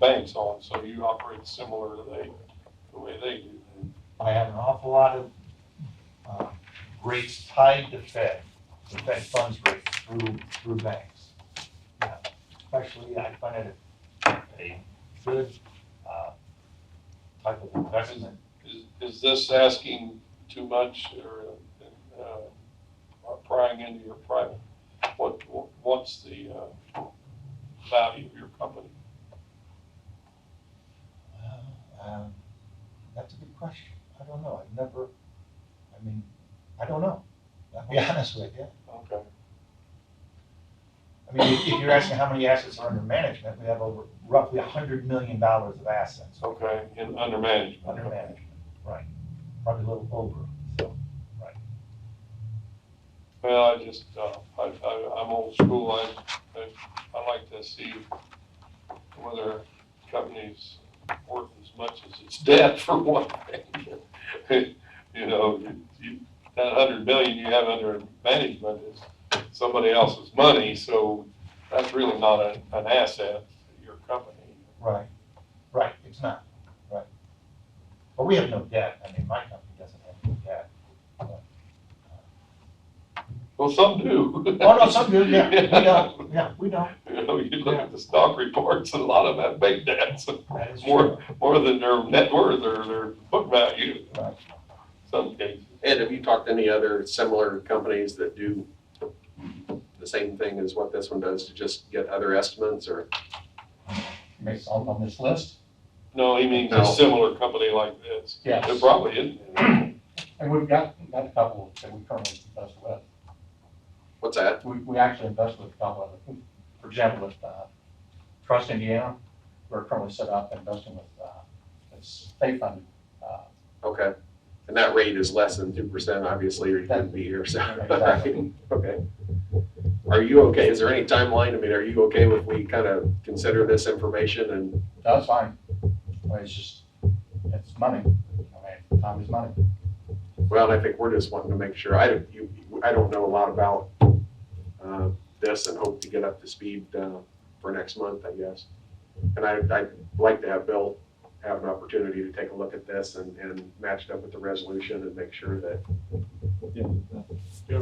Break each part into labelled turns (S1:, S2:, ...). S1: banks on, so you operate similar to they, the way they do.
S2: I have an awful lot of uh, rates tied to Fed, the Fed funds rate through, through banks. Yeah, Especially, I find it a- a good uh, type of investment.
S1: Is, is this asking too much or, uh, or prying into your private? What, what's the, uh, value of your company?
S2: Um, That's a good question. I don't know. I've never, I mean, I don't know. I'll be honest with you.
S1: Okay.
S2: I mean, if if you're asking how many assets are under management, we have over roughly $100 million of assets.
S1: Okay, in, under management.
S2: Under management, right, probably a little over, so, right.
S1: Well, I just, uh, I, I, I'm old school, I, I, I like to see whether companies worth as much as its debt for one thing. You know, you- you, that hundred million you have under management is somebody else's money, so that's really not a, an asset to your company.
S2: Right, right, it's not, right. But we have no debt, I mean, my company doesn't have any debt. Oh,
S1: Well, some do.
S2: Oh, no, some do, yeah, we don't, yeah, we don't,
S1: You know, you look at the stock reports, and a lot of them have big debts.
S2: that is true.
S1: more, more than their net worth or their book value in
S2: Right.
S1: some cases.
S3: Ed, have you talked to any other similar companies that do the same thing as what this one does to just get other estimates or?
S2: Based on, on this list,
S1: No, he means
S3: No.
S1: a similar company like this.
S4: Yes.
S1: There probably isn't.
S4: And we've got, got a couple that we currently invest with.
S3: What's that?
S4: We, we actually invest with a couple of them. For example, with, uh, Trust Indiana, we're currently set up investing with, uh, it's state funded, uh,
S3: Okay. And that rate is less than two percent, obviously, or you wouldn't be here, so.
S4: Exactly.
S3: Okay. Are you okay? Is there any timeline? I mean, are you okay if we kind of consider this information and,
S4: that's fine. But it's just, it's money. I mean, time is money.
S3: well, I think we're just wanting to make sure. I don't, you, I don't know a lot about, uh, this and hope to get up to speed, uh, for next month, I guess. And I, I'd like to have Bill have an opportunity to take a look at this and, and match it up with the resolution and make sure that
S5: I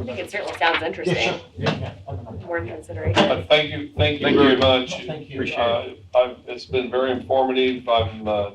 S5: think it certainly sounds interesting,
S2: Yeah,
S5: worth consideration.
S1: But thank you, thank you
S3: Thank
S1: very
S3: you.
S1: much.
S2: Thank you.
S3: Appreciate
S1: Uh, I've, it's been very informative. I'm, uh,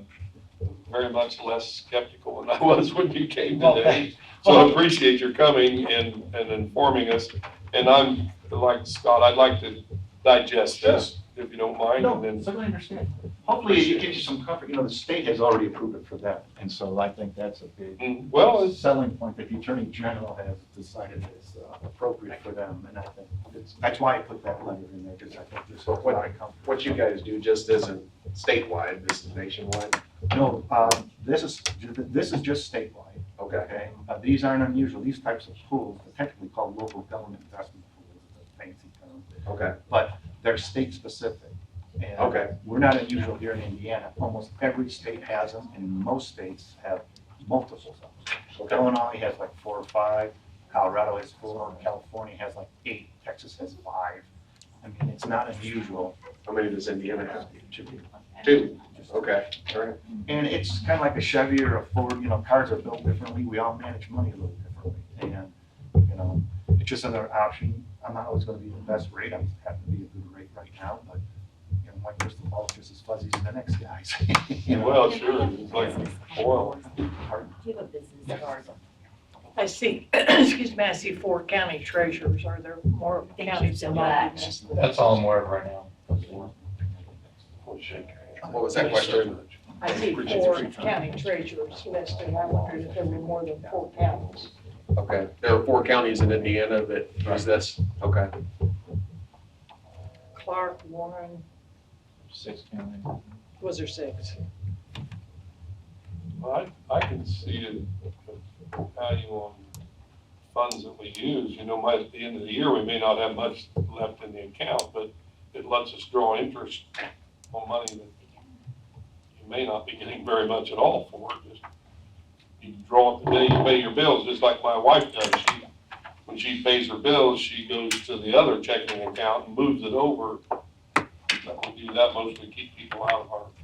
S1: very much less skeptical than I was when you came
S2: Well,
S1: today. So I appreciate your coming and, and informing us. And I'm, like Scott, I'd like to digest this, if you don't mind,
S6: No,
S1: and then
S6: certainly understand. Hopefully, it gives you some comfort, you know, the state has already approved it for them, and so I think that's a big
S1: Mm, Well, it's,
S6: selling point that the Attorney General has decided is uh, appropriate for them, and I think it's, that's why I put that letter in there, because I think there's a lot of comfort.
S3: what you guys do just isn't statewide, this is nationwide.
S6: No, um, this is, this is just statewide,
S3: Okay.
S6: okay? Uh, These aren't unusual, these types of pools, they're technically called local government investment pools, the fancy term.
S3: Okay,
S6: they're state-specific. and
S3: Okay.
S6: We're not unusual here in Indiana. Almost every state has them, and most states have multiples of them.
S3: okay,
S6: Illinois has like four or five, Colorado has four, California has like eight, Texas has five. I mean, it's not unusual.
S3: how many does Indiana have? Two, okay, all right,
S6: And it's kind of like a Chevy or a Ford, you know, cars are built differently, we all manage money a little differently. And, you know, it's just another option. I'm not always gonna be the best rate, I'm happy to be a good rate right now, but, you know, my crystal ball is just as fuzzy as the next guy's. You know,
S1: well, sure, it's like oil.
S5: You have a business card.
S7: I see, excuse me, I see four county treasurers. Are there more
S5: Thank you
S7: counties
S5: so
S7: involved?
S5: much.
S2: That's all I'm aware of right now.
S3: what was that question?
S7: I see four county treasurers listed. I wondered if there were more than four counties.
S3: Okay, there are four counties in Indiana that use this, okay,
S7: Clark, Warren,
S2: Six counties.
S7: was there six?
S1: I, I can see the value on funds that we use, you know, might, at the end of the year, we may not have much left in the account, but it lets us draw interest on money that you may not be getting very much at all for, just, you draw it the day you pay your bills, just like my wife does, she, when she pays her bills, she goes to the other checking account and moves it over. That we do that mostly keep people out of our